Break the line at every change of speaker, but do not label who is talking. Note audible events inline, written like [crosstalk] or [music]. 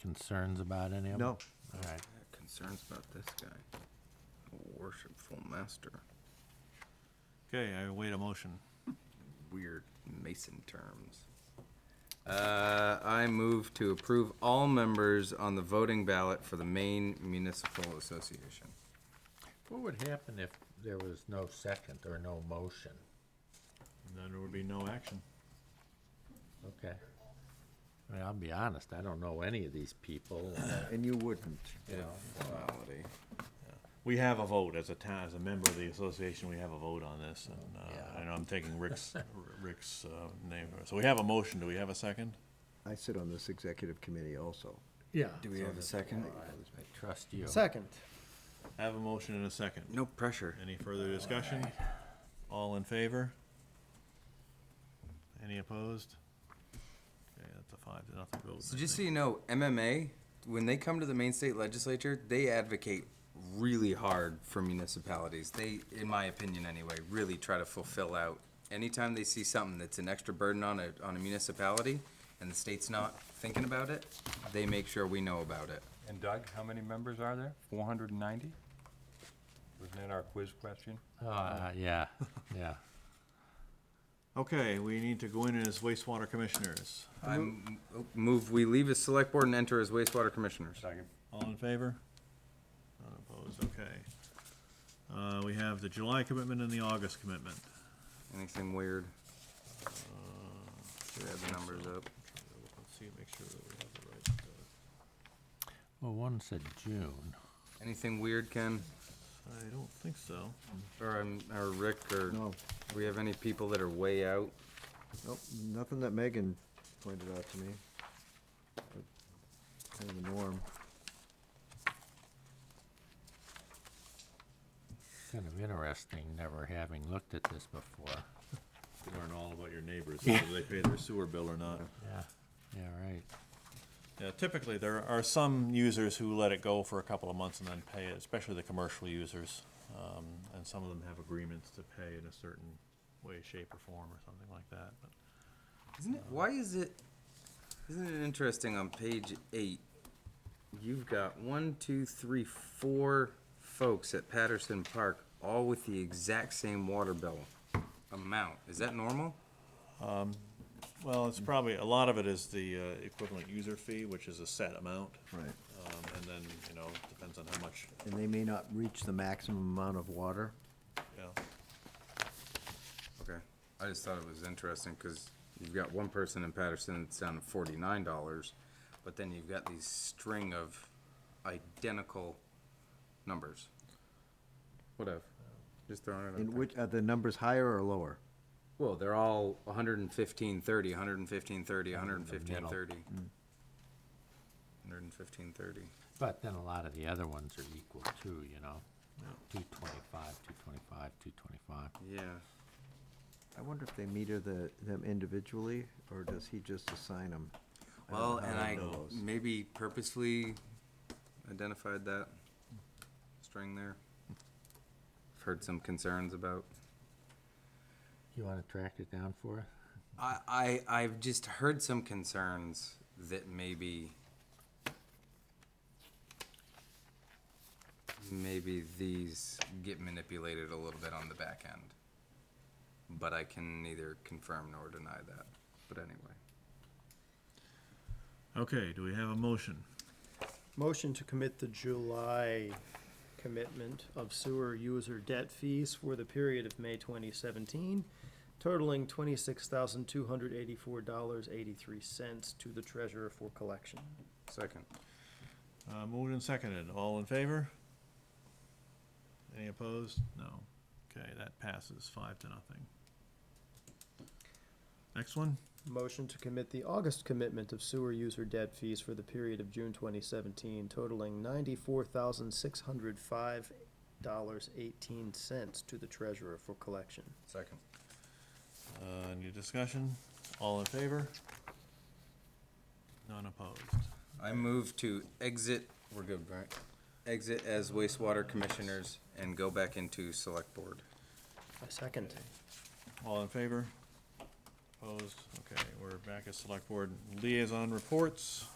concerns about any of them?
No.
All right.
Concerns about this guy, worshipful master,
Okay, I await a motion.
weird Mason terms. Uh, I move to approve all members on the voting ballot for the Maine Municipal Association.
What would happen if there was no second or no motion?
And then there would be no action.
Okay. I mean, I'll be honest, I don't know any of these people, uh,
And you wouldn't.
you know.
Formality.
We have a vote as a town, as a member of the association, we have a vote on this, and, uh,
Yeah.
and I'm taking
[laughs]
Rick's, Rick's, uh, name. So we have a motion, do we have a second?
I sit on this executive committee also.
Yeah.
Do we have a second?
I trust you.
Second.
I Have a motion and a second.
No pressure.
Any further discussion? All in favor? Any opposed? Okay, that's a five to nothing vote.
So just so you know, MMA, when they come to the Maine State Legislature, they advocate really hard for municipalities. They, in my opinion anyway, really try to fulfill out. Anytime they see something that's an extra burden on a, on a municipality and the state's not thinking about it, they make sure we know about it.
And Doug, how many members are there? Four hundred and ninety? Wasn't that our quiz question?
Uh, yeah, yeah.
Okay, we need to go in as wastewater commissioners.
I move, we leave as select board and enter as wastewater commissioners.
Second.
All in favor? None opposed, okay. Uh, we have the July commitment and the August commitment.
Anything weird?
Uh,
Should have the numbers up.
Let's see, make sure that we have the right, uh,
Well, one said June.
Anything weird, Ken?
uh, I don't think so.
Or, um, or Rick, or
No,
we have any people that are way out?
nope, nothing that Megan pointed out to me. Kind of the norm.
Kind of interesting, never having looked at this before.
You Learn all about your neighbors, whether they pay their sewer bill or not.
Yeah. Yeah, right.
Yeah, typically, there are some users who let it go for a couple of months and then pay it, especially the commercial users. Um, and some of them have agreements to pay in a certain way, shape, or form, or something like that, but.
Isn't it, why is it, isn't it interesting on page eight, you've got one, two, three, four folks at Patterson Park, all with the exact same water bill amount. Is that normal?
Well, it's probably, a lot of it is the uh, equivalent user fee, which is a set amount.
Right.
Um, And then, you know, depends on how much,
And they may not reach the maximum amount of water.
you know.
Okay, I just thought it was interesting, cause you've got one person in Patterson that's down to forty-nine dollars, but then you've got these string of identical numbers. Whatever, just throwing it out
And
there.
which, are the numbers higher or lower?
Well, they're all 115, 30, 115, 30, 115,
middle.
30. 115, 30.
But then a lot of the other ones are equal too, you know? Two twenty-five, two twenty-five, two twenty-five.
Yeah.
I wonder if they meter the, them individually, or does he just assign them?
Well,
don't know
and
how
I
to know those.
maybe purposely identified that string there. I've heard some concerns about.
You wanna track it down for us?
I, I, I've just heard some concerns that maybe maybe these get manipulated a little bit on the back end. But I can neither confirm nor deny that. But anyway.
Okay, do we have a motion?
Motion to commit the July commitment of sewer user debt fees for the period of May twenty seventeen, totaling twenty-six thousand two hundred eighty-four dollars eighty-three cents to the treasurer for collection.
Second.
Uh, Moved and seconded, all in favor? Any opposed? No. Okay, that passes five to nothing. Next one?
Motion to commit the August commitment of sewer user debt fees for the period of June twenty seventeen totaling ninety-four thousand six hundred five dollars eighteen cents to the treasurer for collection.
Second.
Uh, Any discussion? All in favor? None opposed.
I move to exit, we're good, right? Exit as wastewater commissioners and go back into select board.
I second.
All in favor? Opposed? Okay, we're back at select board liaison reports.